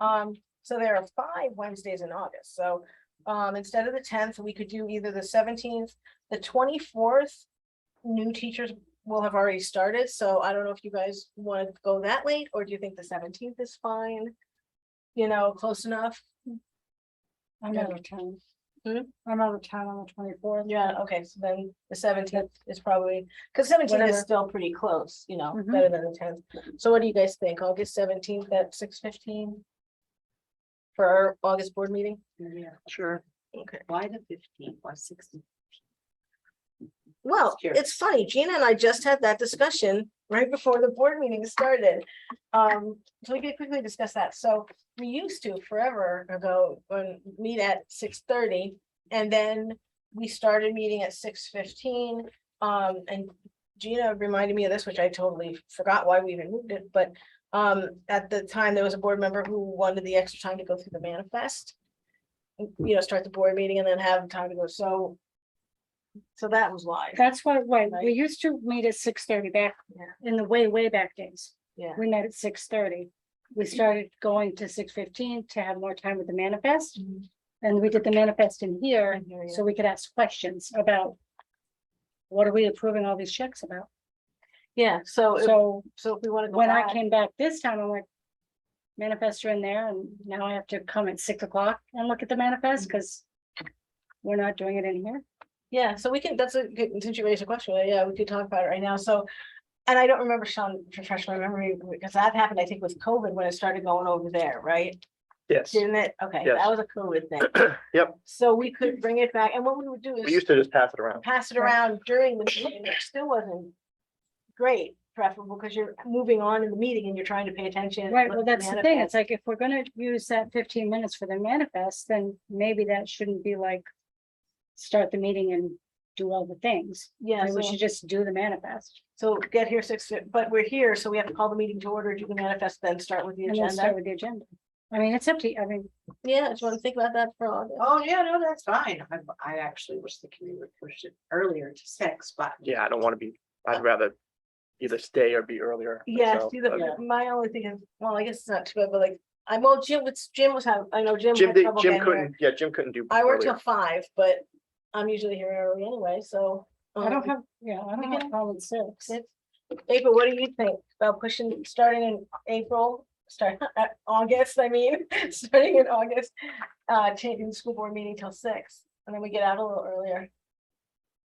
Um, so there are five Wednesdays in August, so, um, instead of the tenth, we could do either the seventeenth, the twenty-fourth. New teachers will have already started, so I don't know if you guys want to go that late, or do you think the seventeenth is fine? You know, close enough? I'm Yeah. out of town. Hmm? I'm out of town on the twenty-fourth. Yeah, okay, so then the seventeenth is probably, because seventeenth Whatever. is still pretty close, you know, Mhm. better than the tenth. So what do you guys think? August seventeenth at six fifteen? For our August board meeting? Yeah, Sure. Okay. why the fifteenth, why sixteen? Well, Sure. it's funny, Gina and I just had that discussion right before the board meeting started. Um, so we could quickly discuss that. So we used to forever ago, when meet at six thirty. And then we started meeting at six fifteen, um, and Gina reminded me of this, which I totally forgot why we even moved it, but. Um, at the time, there was a board member who wanted the extra time to go through the manifest. You know, start the board meeting and then have time to go, so. So that was why. That's why, why, Right. we used to meet at six thirty back Yeah. in the way, way back days. Yeah. We met at six thirty. We Mm-hmm. started going to six fifteen to have more time with the manifest. Mhm. And we did the manifest in I here, hear so you. we could ask questions about what are we approving all these checks about? Yeah, so, if- So so if we want to go when I back, came back this time, I'm like, manifests are in there and now I have to come at six o'clock and look at the Mm-hmm. manifest because we're not doing it in here. yeah, so we can, that's a good, since you raised a question, yeah, we could talk about it right now, so. And I don't remember, Sean, refresh my memory, because that happened, I think, with COVID when it started going over there, right? Yes, Didn't it? Okay, Yes. that was a COVID thing. Yep. So we could bring it back, and what we would do we is used to just pass it around. pass it around during the meeting, which still wasn't. Great, preferable, because you're moving on in the meeting and you're trying to pay attention. and Right, look well, at the that's the thing. manifest. It's like if we're gonna use that fifteen minutes for the manifest, then maybe that shouldn't be like. Start the meeting and do all the things. Yeah, Maybe we so- should just do the manifest so get here six, fif- but we're here, so we have to call the meeting to order, do the manifest, then start with the and then agenda. start with the agenda. I mean, it's up to, you. I mean, Yeah, I just want to think about that for August. Oh, yeah, no, that's fine. I, I actually wish the committee would push it earlier to six, but. Yeah, I don't want to be, I'd rather either stay or be earlier. uh, Yeah, myself, see, the, but my only thing is, well, I guess it's not too bad, but like, I well, Jim, was Jim was having, I know Jim. Jim had did, trouble Jim getting here. couldn't, yeah, Jim couldn't do. I work till earlier. five, but I'm usually here early anyway, so. I don't um, have, yeah, I we don't can- have problem with six. six. April, what do you think about pushing, starting in April, start, uh, August, I mean, starting in August? Uh, taking the school board meeting till six, and then we get out a little earlier.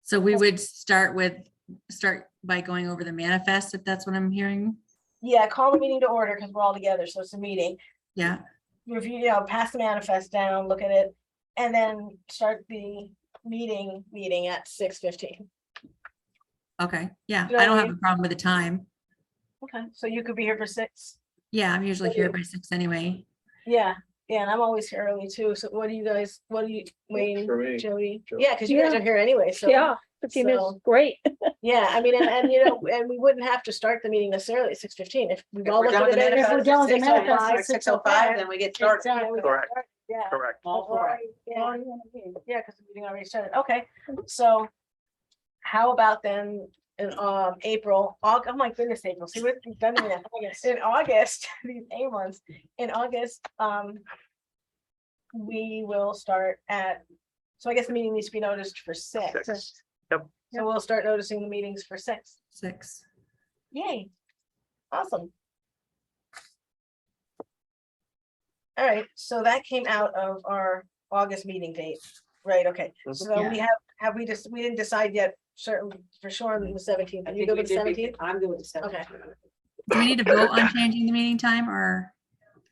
So we would start with, start by going over the manifest, if that's what I'm hearing. Yeah, call the meeting to order because we're all together, so it's a meeting. Yeah, review, you know, pass the manifest down, look at it, and then start the meeting, meeting at six fifteen. okay, yeah, You know I what don't I have a problem with the time. Okay. So you could be here for six. Yeah, I'm usually here Okay. by six anyway. Yeah, yeah, and I'm always here early too. So what do you guys, what do you, Wayne, For me. Jody? Sure. Yeah, because you guys Yeah. are here anyway, so. so- great. Yeah, I mean, and, and you know, and we wouldn't have to start the meeting necessarily at six fifteen if. we If all we're look done at with the it If we're manifest done with the at six oh manifest five, at six oh five, 6:05, then we get started. Yeah, we Exactly. can Correct. start, Yeah. Correct. All for it. Yeah. Already in the meeting. Yeah, because the meeting already started. Okay, so how about then in um April, Aug, oh my goodness, April, see what we've done in August, in August, these A ones, in August, um. We will start at, so I guess the meeting needs to be noticed for six, Six. so we'll start noticing the meetings for six. Six. Yay, awesome. All right, so that came out of our August meeting date, right, okay, Mhm. so we Yeah. have, have we just, we didn't decide yet, certain, for sure, on the seventeenth, I you think go we to did be- seventeenth? I'm doing the seventeenth. Do we need to vote on changing the meeting time or,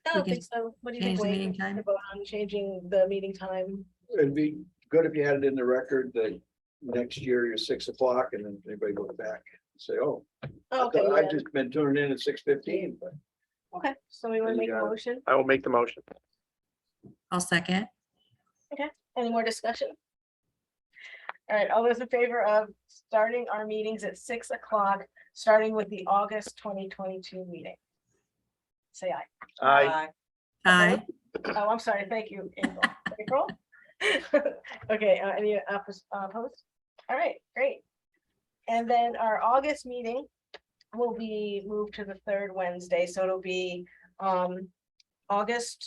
I don't can think so, what do you think, change the Wayne? meeting We can time. vote on Changing the meeting time, It'd be good if you had it in the record that next year you're six o'clock and then everybody goes back and say, oh. I okay, thought yeah. I've just been tuning in at six fifteen, but okay, somebody wanna You make a got it. motion, I will make the motion. I'll second. any more discussion? All right, all those in favor of starting our meetings at six o'clock, starting with the August twenty twenty-two meeting? Say aye. I, Aye. Oh, I'm sorry, thank you, April. April? Okay, uh, any oppos- uh, opposed? All right, great. And then our August meeting will be moved to the third Wednesday, so it'll be um August